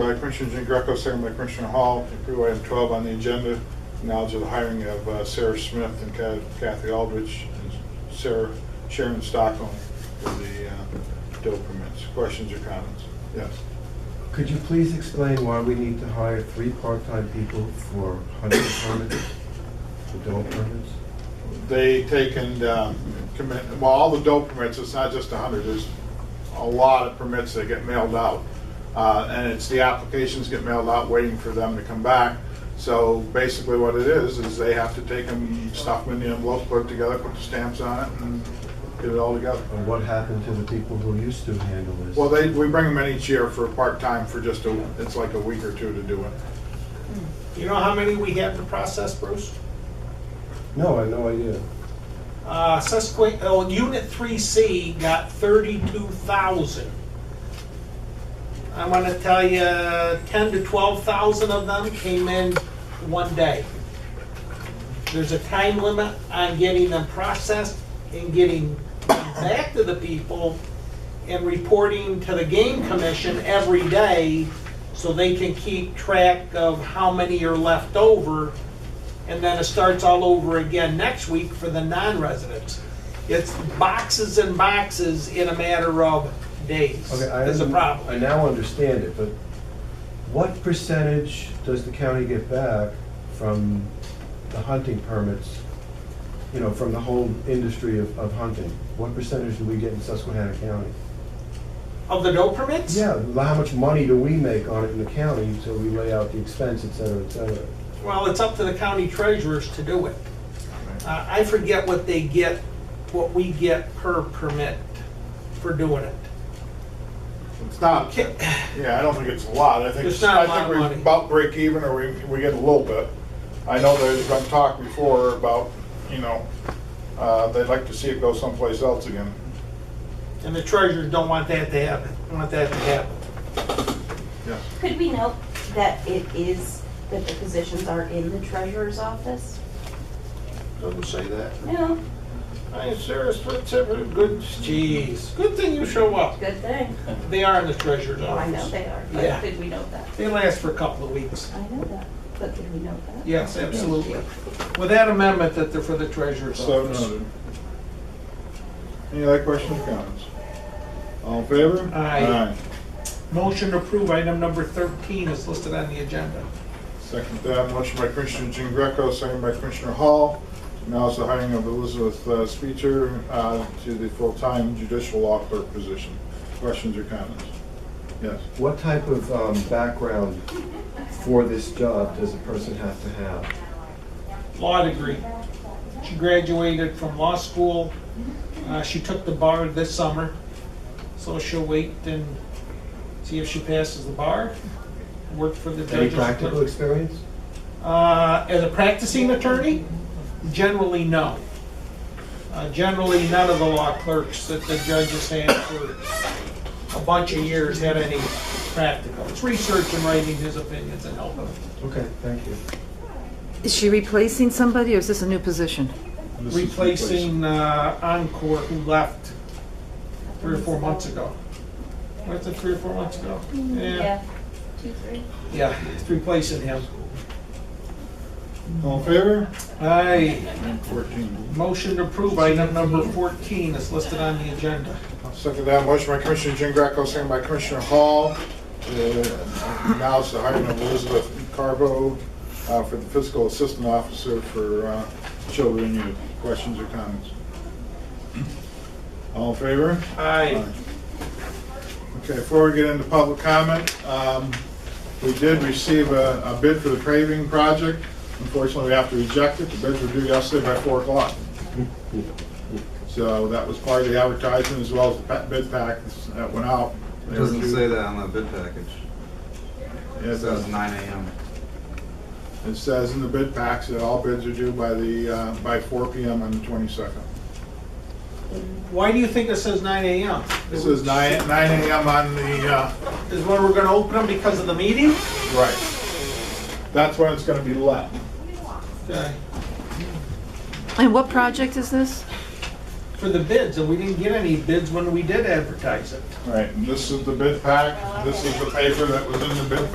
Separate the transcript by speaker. Speaker 1: by Commissioner Jean Greco, second by Commissioner Hall, to approve item 12 on the agenda, knowledge of the hiring of uh, Sarah Smith and Ka- Kathy Aldrich and Sarah Sharon Stockholm for the uh, doe permits. Questions or comments? Yes.
Speaker 2: Could you please explain why we need to hire three part-time people for hunting permits, for dog permits?
Speaker 1: They take and um, commit, well, all the doe permits, it's not just 100, there's a lot of permits that get mailed out. Uh, And it's, the applications get mailed out waiting for them to come back. So basically what it is, is they have to take them, stuff them in the envelope, put it together, put the stamps on it, and get it all together.
Speaker 2: And what happened to the people who used to handle this?
Speaker 1: Well, they, we bring them in each year for part-time for just a, it's like a week or two to do it.
Speaker 3: You know how many we have to process, Bruce?
Speaker 2: No, I had no idea.
Speaker 3: Uh, Susque, oh, Unit three C got thirty-two thousand. I wanna tell you, ten to twelve thousand of them came in one day. There's a time limit on getting them processed and getting them back to the people and reporting to the game commission every day so they can keep track of how many are left over and then it starts all over again next week for the non-residents. It's boxes and boxes in a matter of days
Speaker 2: Okay, I
Speaker 3: is a
Speaker 2: un- I
Speaker 3: problem.
Speaker 2: now understand it, but what percentage does the county get back from the hunting permits? You know, from the whole industry of, of hunting? What percentage do we get in Susquehanna County?
Speaker 3: Of the no permits?
Speaker 2: Yeah, how much money do we make on it in the county until we lay out the expense, et cetera, et cetera?
Speaker 3: Well, it's up to the county treasurers to do it. Uh, I forget what they get, what we get per permit for doing it.
Speaker 1: It's not,
Speaker 3: Ki-
Speaker 1: yeah, I don't think it's a lot. I think,
Speaker 3: It's not a
Speaker 1: I
Speaker 3: lot
Speaker 1: think
Speaker 3: of
Speaker 1: we're
Speaker 3: money.
Speaker 1: about break even or we, we get a little bit. I know there's been talk before about, you know, uh, they'd like to see it go someplace else again.
Speaker 3: And the treasurers don't want that to happen, Don't want that to happen.
Speaker 1: Yes.
Speaker 4: Could we note that it is, that the positions are in the treasurer's office?
Speaker 3: Doesn't say that.
Speaker 4: No,
Speaker 3: Hey, Sarah, what's up? Good, jeez, good thing you show up.
Speaker 4: good thing.
Speaker 3: They are in the treasurer's
Speaker 4: Oh, I
Speaker 3: office.
Speaker 4: know they are,
Speaker 3: Yeah.
Speaker 4: but could we note that?
Speaker 3: They last for a couple of weeks.
Speaker 4: I know that, but could we note that?
Speaker 3: Yes, absolutely. With that amendment that they're for the treasurer's
Speaker 1: So
Speaker 3: office.
Speaker 1: noted. Any other questions or comments? All in favor?
Speaker 3: Aye. Motion to approve item number 13 is listed on the agenda.
Speaker 1: Second that, motion by Commissioner Jean Greco, second by Commissioner Hall. Now is the hiring of Elizabeth uh, Speecher uh, to the full-time judicial law clerk position. Questions or comments? Yes.
Speaker 2: What type of um, background for this job does a person have to have?
Speaker 3: Law degree. She graduated from law school. Uh, She took the bar this summer, so she'll wait and see if she passes the bar, work for the
Speaker 2: Any
Speaker 3: judges.
Speaker 2: practical experience?
Speaker 3: Uh, As a practicing attorney, generally no. Uh, Generally, none of the law clerks that the judges had for a bunch of years had any practical. It's research and writing his opinions and helping.
Speaker 2: Okay, thank you.
Speaker 5: Is she replacing somebody or is this a new position?
Speaker 1: This is
Speaker 3: Replacing uh, Encore who left three or four months ago. Was it three or four months ago?
Speaker 4: Yeah, two, three.
Speaker 3: Yeah, it's replacing him.
Speaker 1: All in favor?
Speaker 3: Aye,
Speaker 1: Item 14.
Speaker 3: motion to approve item number 14 is listed on the agenda.
Speaker 1: Second that, motion by Commissioner Jean Greco, second by Commissioner Hall. Uh, Now is the hiring of Elizabeth Carbo uh, for the fiscal assistant officer for uh, children and youth. Questions or comments? All in favor?
Speaker 3: Aye.
Speaker 1: Okay, before we get into public comment, um, we did receive a a bid for the paving project. Unfortunately, we have to reject it. The bids were due yesterday by 4 o'clock. So that was part of the advertisement as well as the pa- bid pack that went out.
Speaker 6: It doesn't say that on the bid package.
Speaker 1: It
Speaker 6: It says
Speaker 1: does.
Speaker 6: nine AM.
Speaker 1: It says in the bid packs that all bids are due by the, uh, by 4 PM on the 22nd.
Speaker 3: Why do you think it says nine AM?
Speaker 1: This is 9 9 AM on the, uh,
Speaker 3: Is when we're gonna open them because of the meeting?
Speaker 1: right. That's when it's going to be let.
Speaker 3: Okay.
Speaker 5: And what project is this?
Speaker 3: For the bids, and we didn't get any bids when we did advertise it.
Speaker 1: Right, and this is the bid pack. This is the paper that was in the bid